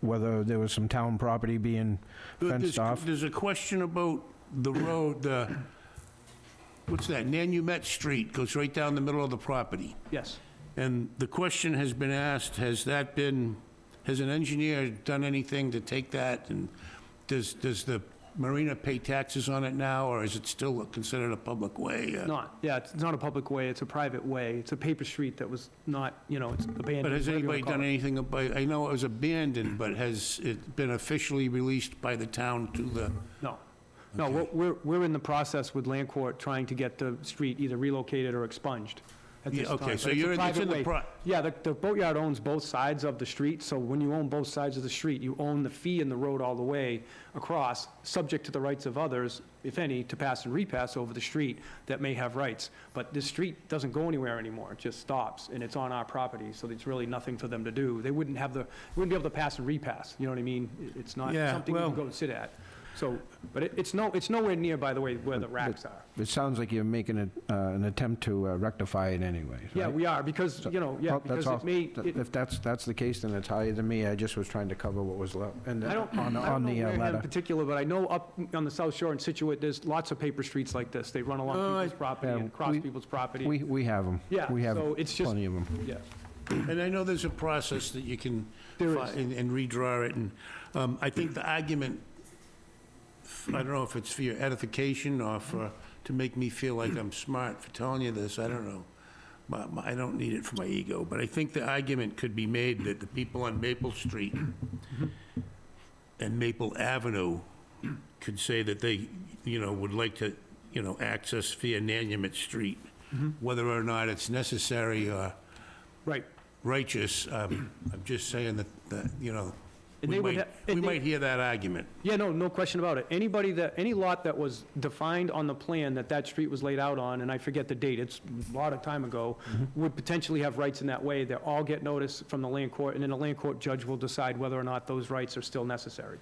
whether there was some town property being But fenced there's- off. There's a question about the road, the, what's that, Nanumet Street goes right down the middle of the property. Yes. And the question has been asked, has that been, has an engineer done anything to take that? And does, does the marina pay taxes on it now, or is it still considered a public way? Uh, Not, yeah, it's it's not a public way, it's a private way. It's a paper street that was not, you know, it's abandoned. But has whatever you anybody wanna call done it. anything about, I know it was abandoned, but has it been officially released by the town to the, No. No, we're- we're, we're in the process with Land Court trying to get the street either relocated or expunged at Yeah, this time. okay, so but it's a you're in- it's private in the way. pro- Yeah, the, the boatyard owns both sides of the street, so when you own both sides of the street, you own the fee and the road all the way across, subject to the rights of others, if any, to pass and repass over the street that may have rights. But this street doesn't go anywhere anymore, it just stops, and it's on our property, so there's really nothing for them to do. They wouldn't have the, wouldn't be able to pass and repass, you know what I mean? It- It's not Yeah, something you well- can go and sit at. So, but it- it's no, it's nowhere near, by the way, where the racks are. It sounds like you're making a- uh, an attempt to uh, rectify it anyway. Yeah, we are, because, you know, yeah, Well, oh, that's because it all. may, Th- it- If that's, that's the case, then it's higher than me. I just was trying to cover what was left, and I uh, don't, I on, don't on know the uh, where in ladder. particular, but I know up on the South Shore in Situate, there's lots of paper streets like this. They run along Oh, I- people's property Uh, Yeah, and across we- people's property. We, we have them. Yeah, We have so it's just- plenty of them. Yeah. And I know there's a process that you can There fi- is. and and redraw it, and um, I think the argument, I don't know if it's for your edification or for, to make me feel like I'm smart for telling you this, I don't know. My- my- I don't need it for my ego, but I think the argument could be made that the people on Maple Street and Maple Avenue could say that they, you know, would like to, you know, access via Nanumet Street, Mm-hmm. whether or not it's necessary or Right. righteous, um, I'm just saying that, that, you know, And we they would might, ha- we and they- might hear that argument. Yeah, no, no question about it. Anybody that, any lot that was defined on the plan that that street was laid out on, and I forget the date, it's a lot of time ago, would potentially have rights in that way. They all get notice from the land court, and then the land court judge will decide whether or not those rights are still necessary.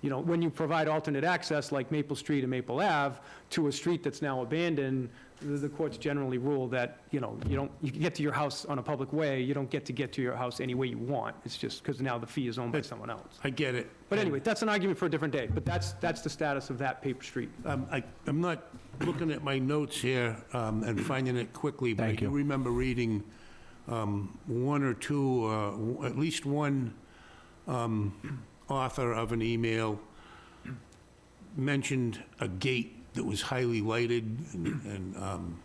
You know, when you provide alternate access, like Maple Street and Maple Ave, to a street that's now abandoned, the- the courts generally rule that, you know, you don't, you can get to your house on a public way, you don't get to get to your house any way you want. It's just because now the fee is owned by someone else. I get it. But anyway, that's an argument for a different day, but that's, that's the status of that paper street. Um, I, I'm not looking at my notes here, um, and finding it quickly, but I Thank do you. remember reading, um, one or two, uh, w- at least one, um, author of an email mentioned a gate that was highly lighted and, and, um,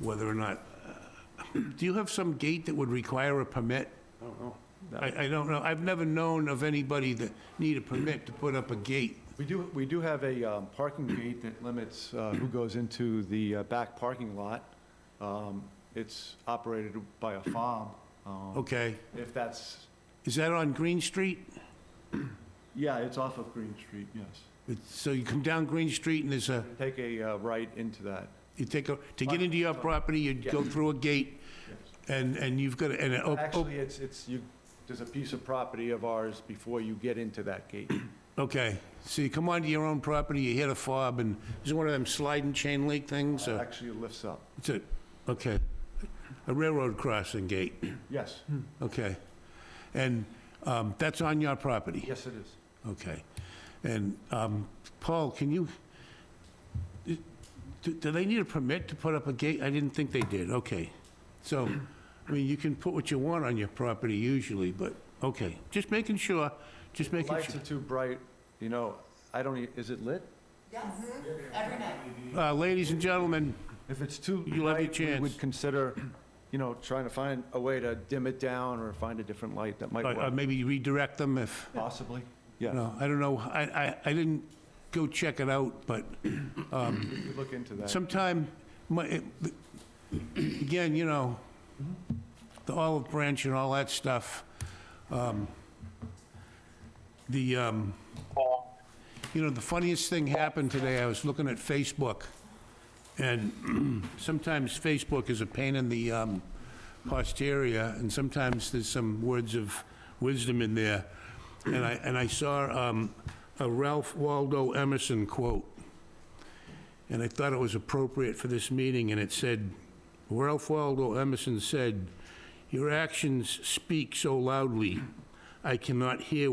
whether or not, uh, do you have some gate that would require a permit? I don't know. I, I don't know, I've never known of anybody that need a permit to put up a gate. We do, we do have a um, parking gate that limits uh, who goes into the uh, back parking lot. Um, It's operated by a farm. um, Okay, If that's, is that on Green Street? yeah, it's off of Green Street, yes. It's- So you come down Green Street and there's a, Take a uh, right into that. you take a, to get into your property, you go through a gate and, and you've got, a- and, a- oh, Actually, it's, it's, you, there's a piece of property of ours before you get into that gate. oh, okay. So you come onto your own property, you hit a fob and is it one of them sliding chain link things or? Actually, it lifts up. It's a, okay, a railroad crossing gate, Yes, okay. And, um, that's on your property? yes, it is. Okay. And, um, Paul, can you, do do they need a permit to put up a gate? I didn't think they did, okay. So, I mean, you can put what you want on your property usually, but, okay, just making sure, just making Lights are sure. too bright, you know, I don't, e- is it lit? Yes, every night. Uh, Ladies and gentlemen, If it's too You'll have your bright, we chance. would consider, you know, trying to find a way to dim it down or find a different light that might uh, uh, work. maybe redirect them if, Possibly, you yeah. know, I don't know, I, I, I didn't go check it out, but We could look into that. sometime, my, it- again, you know, the olive branch and all that stuff, um, the, um, you know, the funniest thing happened today, I was looking at Facebook, and sometimes Facebook is a pain in the um, posterior, and sometimes there's some words of wisdom in there, and I, and I saw um, a Ralph Waldo Emerson quote, and I thought it was appropriate for this meeting, and it said, Ralph Waldo Emerson said, "Your actions speak so loudly, I cannot hear